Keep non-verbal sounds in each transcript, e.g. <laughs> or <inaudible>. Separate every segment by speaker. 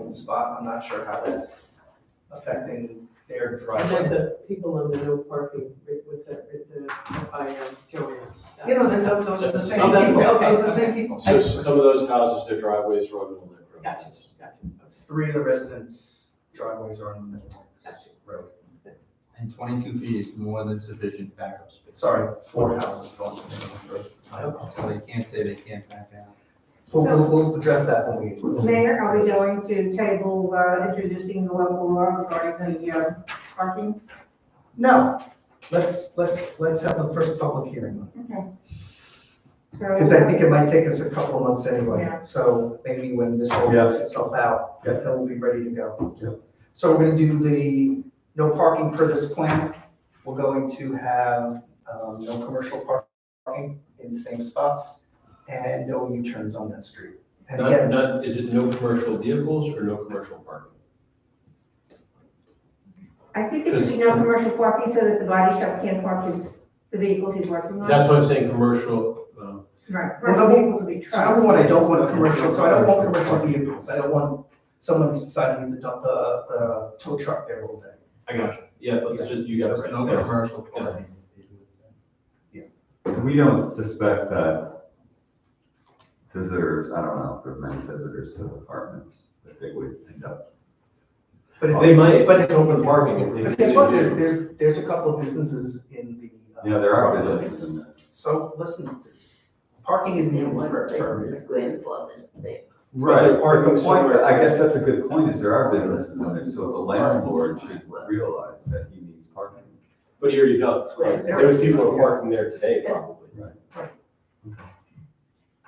Speaker 1: open spot, I'm not sure how that's affecting their
Speaker 2: And then
Speaker 1: driveway.
Speaker 2: the people on the no parking, right, what's that, right, the, by um, Joanne's.
Speaker 1: You know, they're- those, those are the same
Speaker 2: Oh, that's-
Speaker 1: people,
Speaker 2: okay,
Speaker 1: those are the
Speaker 2: okay.
Speaker 1: same people.
Speaker 3: So some of those houses, their driveways are on Middle Neck Road.
Speaker 2: Gotcha, gotcha, okay,
Speaker 1: Three of the residents' driveways are on the middle
Speaker 2: gotcha.
Speaker 1: road.
Speaker 4: And 22 feet is more than sufficient backup space.
Speaker 1: Sorry, four houses go on the middle road. I
Speaker 4: So
Speaker 1: apologize.
Speaker 4: they can't say they can't back out.
Speaker 5: So we'll, we'll address that when we.
Speaker 6: Mayor, are we going to table uh, introducing the local law regarding the uh, parking?
Speaker 5: No, let's, let's, let's have the first public hearing.
Speaker 6: So-
Speaker 5: Because I think it might take us a couple of months anyway.
Speaker 6: Yeah.
Speaker 5: So maybe when this all
Speaker 3: Yeah.
Speaker 5: works itself out, then we'll be ready to
Speaker 3: Yeah.
Speaker 5: go. So we're going to do the no parking per this plan. We're going to have um, no commercial parking in the same spots and no U-turns on that street. And
Speaker 3: Not,
Speaker 5: again,
Speaker 3: not, is it no commercial vehicles or no commercial parking?
Speaker 6: I think it should be no commercial parking so that the body shop can't park his, the vehicles he's working on.
Speaker 3: That's what I'm saying, commercial, um,
Speaker 6: Right,
Speaker 5: Well,
Speaker 6: commercial
Speaker 5: the-
Speaker 6: vehicles will be
Speaker 5: So number
Speaker 6: trucks.
Speaker 5: one, I don't want commercial, so I don't want commercial vehicles. I don't want someone deciding to dump the, the tow truck there all day.
Speaker 3: I got you. Yeah, let's just, you got it right.
Speaker 4: No
Speaker 3: Yes.
Speaker 4: commercial parking.
Speaker 7: We don't suspect that visitors, I don't know if there are many visitors to apartments, that they would end up.
Speaker 5: But if
Speaker 3: They
Speaker 5: they,
Speaker 3: might,
Speaker 5: but
Speaker 3: but
Speaker 5: it's
Speaker 3: it's open parking if they.
Speaker 5: Oh, but guess what,
Speaker 3: they
Speaker 5: there's,
Speaker 3: do.
Speaker 5: there's, there's a couple of businesses in the. uh,
Speaker 7: You know, there are businesses in there.
Speaker 5: So listen to this. Parking is needed for, for everything.
Speaker 3: Right.
Speaker 7: But the point-
Speaker 3: Somewhere.
Speaker 7: I guess that's a good point, is there are businesses in there, so the landlord should realize that he needs parking.
Speaker 3: But here you go.
Speaker 5: Right there.
Speaker 3: Those people are parking there today probably.
Speaker 7: Right.
Speaker 5: Right.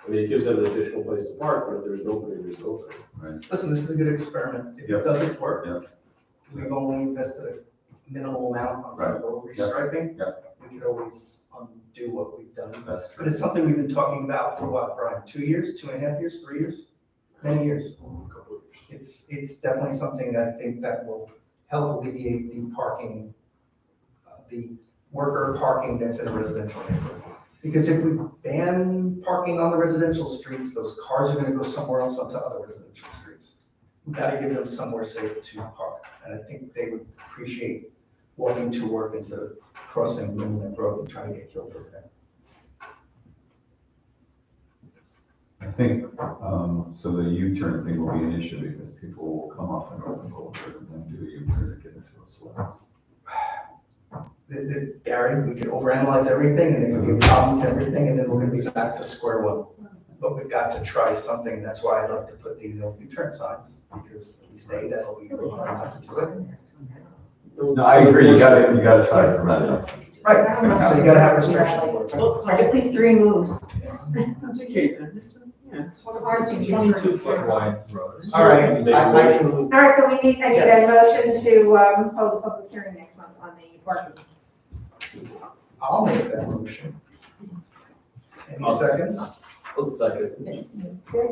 Speaker 3: I mean, it gives them an additional place to park, but if there's nobody, there's nobody.
Speaker 5: Listen, this is a good experiment. If
Speaker 7: Yep.
Speaker 5: it doesn't work,
Speaker 7: Yep.
Speaker 5: we've only invested a minimal amount on
Speaker 7: Right.
Speaker 5: some road restriping.
Speaker 7: Yep.
Speaker 5: We could always undo what we've done.
Speaker 7: That's
Speaker 5: But
Speaker 7: true.
Speaker 5: it's something we've been talking about for what, Brian, two years, two and a half years, three years? Many years. It's, it's definitely something that I think that will help alleviate the parking, uh, the worker parking that's in a residential neighborhood. Because if we ban parking on the residential streets, those cars are gonna go somewhere else onto other residential streets. We've gotta give them somewhere safe to park, and I think they would appreciate walking to work instead of crossing Middle Neck Road and trying to get killed over that.
Speaker 7: I think, um, so the U-turn thing will be an issue because people will come off an open boulevard and then do a U-turn to get into those slots.
Speaker 5: the, the, Gary, we could overanalyze everything and it could be a problem to everything and then we're gonna be back to square one. But we've got to try something, that's why I'd like to put the no return signs, because if we stay, that'll be. a reason to do it.
Speaker 7: No, I agree, you gotta, you gotta try to prevent it.
Speaker 5: Right, so you gotta have restrictions for it.
Speaker 2: Well, I
Speaker 6: At
Speaker 2: guess
Speaker 6: least three moves.
Speaker 2: that's okay, then, it's, yeah, it's one of our.
Speaker 6: Parking.
Speaker 4: Twenty-two foot wide road.
Speaker 5: All right,
Speaker 3: Make a
Speaker 5: I- I-
Speaker 3: motion.
Speaker 6: All right, so we need, I need a motion to um, hold a public hearing next month on the parking.
Speaker 5: I'll make that motion. Any
Speaker 3: I'll-
Speaker 5: seconds?
Speaker 3: I'll second.
Speaker 6: Okay,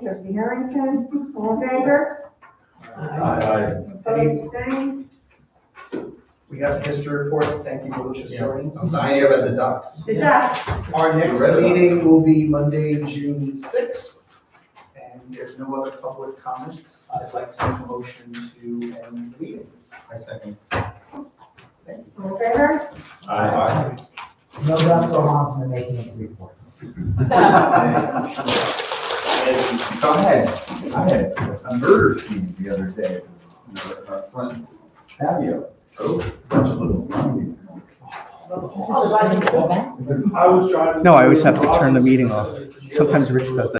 Speaker 6: trustee Harrington, all in favor?
Speaker 3: Aye.
Speaker 5: Any-
Speaker 6: Opposed, abstained?
Speaker 5: We have the history report, thank you, village historians.
Speaker 1: dying here at the docks.
Speaker 6: The ducks.
Speaker 5: Our next
Speaker 1: Read about it.
Speaker 5: meeting will be Monday, June sixth, and there's no other public comments. I'd like to make a motion to end the meeting.
Speaker 4: I second.
Speaker 6: all in favor?
Speaker 3: Aye.
Speaker 8: No, that's the ones when making the reports.
Speaker 9: <laughs>
Speaker 3: And
Speaker 9: So I had, I had a murder scene the other day, you know, at our front patio, oh, bunch of little zombies.
Speaker 8: Oh, why didn't you go back?
Speaker 9: It's a
Speaker 5: No, I always have to turn the meeting off. Sometimes Rich does that.